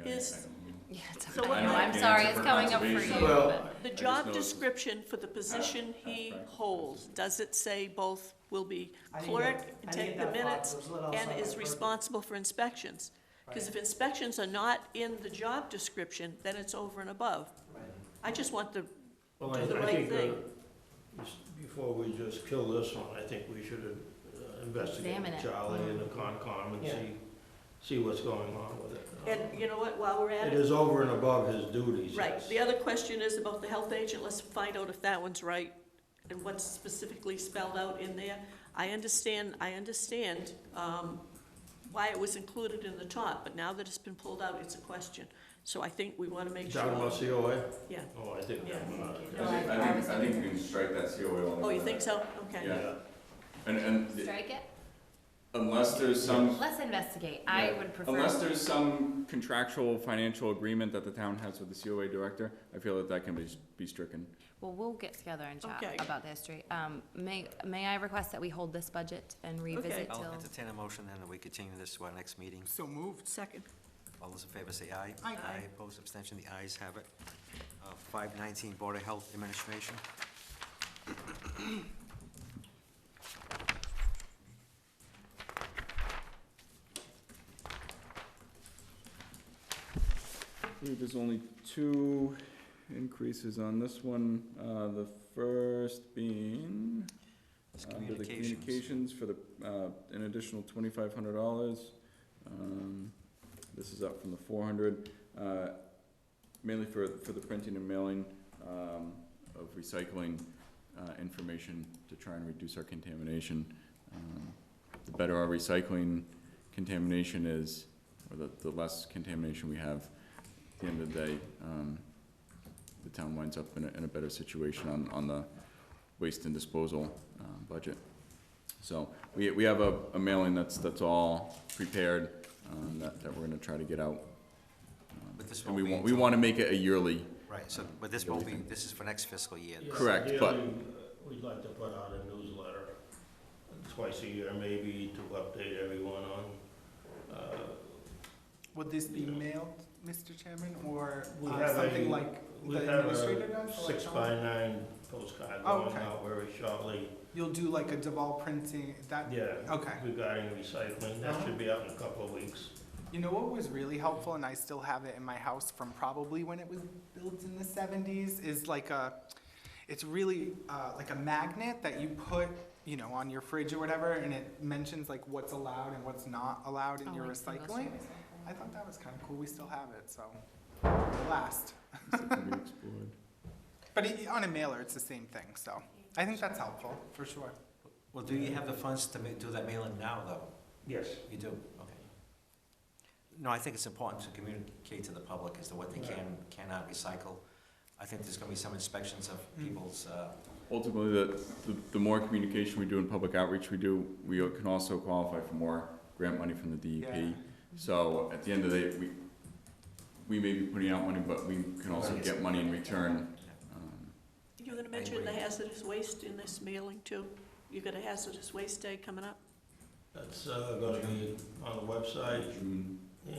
It's- Yeah, it's So all what- right. I know I I'm can't sorry, answer it's for coming up for you. conservation. Well, but- I The just Ah, job know it's- description for the position he practice. holds, does it say both will be I didn't clerk, get- I and didn't get take the that far. minutes, It was a little outside and my is purview. responsible for inspections? Because if Right, inspections are not in the job description, then it's over and above. right. I just want the, Well, I do the I right think, uh, thing. s- before we just kill this one, I think we should uh, investigate Examine it. Charlie and the Mm-hmm. Concom and Yeah. see, see what's going on with it. and you know what, while we're at It it, is over and above his duties, right, yes. the other question is about the health agent, let's find out if that one's right, and what's specifically spelled out in there. I understand, I understand, um, why it was included in the top, but now that it's been pulled out, it's a question. So I think we wanna make sure. Talking about COA? Yeah. Oh, I think, Yeah. I'm not- I think, I think, I think we can strike that COA on. Oh, you think so? Okay. Yeah. yeah, And, and Strike it? unless there's some, Let's investigate. I Yeah. would prefer. unless there's some contractual financial agreement that the town has with the COA director, I feel that that can be, be stricken. Well, we'll get together and chat Okay. about the history. Um, may, may I request that we hold this budget and revisit I'll till? entertain Oh, a motion then that we continue this to our next meeting. So moved. Second. All those in favor say aye. Aye. Aye, opposed, abstention, the ayes have it. Uh, Five nineteen, Board of Health Administration. I believe there's only two increases on this one, uh, the first being It's under Uh, the communications. communications for the, uh, an additional twenty-five hundred dollars. Um, this is up from the four hundred, uh, mainly for, for the printing and mailing, um, of recycling, uh, information to try and reduce our contamination. Um, The better our recycling contamination is, or the, the less contamination we have, at the end of the day, um, the town winds up in a, in a better situation on, on the waste and disposal, um, budget. So, we, we have a, a mailing that's, that's all prepared, um, that, that we're gonna try to get out. Um, But this And we won't be want, we until- wanna make it a yearly, Right, so, but this won't be, Everything. this is for next fiscal year. Yeah, Correct, but- ideally, uh, We'd like to put out a newsletter twice a year maybe to update everyone on, uh, Would this be mailed, Mr. Chairman, or We uh, have a- something like we the have administrator a does? six by electronic? nine postcard Oh, going okay. out very shortly. You'll do like a Deval printing, that, Yeah, okay. regarding recycling, that Uh-huh. should be out in a couple of weeks. You know what was really helpful, and I still have it in my house from probably when it was built in the seventies, is like a, it's really uh, like a magnet that you put, you know, on your fridge or whatever, and it mentions like what's allowed and what's not allowed in Oh, your like compost recycling. recycling. I thought that was kind of cool. We still have it, so last. something we explored. But it, on a mailer, it's the same thing, so I think that's helpful for sure. Well, do you have the funds to ma- do that mailing now, though? Yes. You do, okay. No, I think it's important to communicate to the public as to what they can, cannot recycle. I think there's gonna be some inspections of people's, uh, Ultimately, the, the, the more communication we do and public outreach we do, we can also qualify for more grant money from the Yeah. DEP. So at the end of the day, we, we may be putting out money, but we can also get money in return. Um, You're gonna mention the hazardous waste in this mailing too? You got a hazardous waste day coming up? That's uh, gonna be on the website, June, and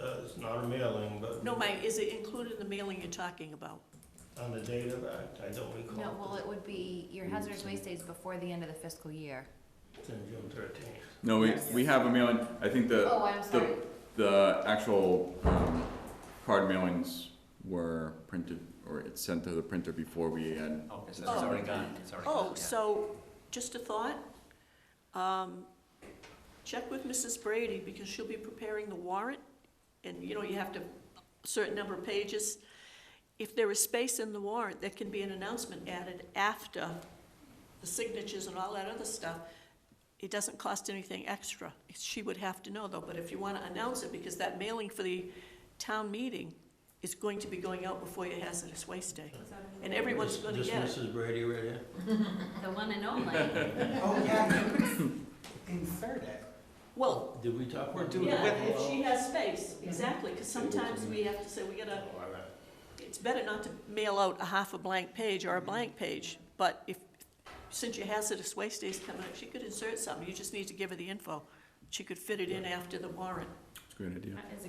uh, it's not a mailing, but No, Mike, is it included in the mailing you're talking about? on the date of that, I don't recall. No, well, it would be your hazardous waste days before the end of the fiscal year. It's in June thirteenth. No, we, Yes. we have a mailing, I think the, Oh, I'm sorry. the actual, um, card mailings were printed, or it's sent to the printer before we had oh, it's Oh. already gone, it's already gone, Oh, yeah. so, just a thought. Um, Check with Mrs. Brady, because she'll be preparing the warrant, and, you know, you have to, a certain number of pages. If there is space in the warrant, there can be an announcement added after the signatures and all that other stuff. It doesn't cost anything extra. She would have to know, though, but if you want to announce it, because that mailing for the town meeting is going to be going out before your hazardous waste day. And everyone's going to get it. This Mrs. Brady right here? The one and only. Oh yeah, you could insert it. Well, Did we talk? We're doing Yeah, with if she has space, exactly, because sometimes we have to say, we Oh, gotta, all right. it's better not to mail out a half a blank page or a blank page, but if, since your hazardous waste day's coming up, she could insert something, you just need to give her the info. She could fit it in after the warrant. It's a great idea. Is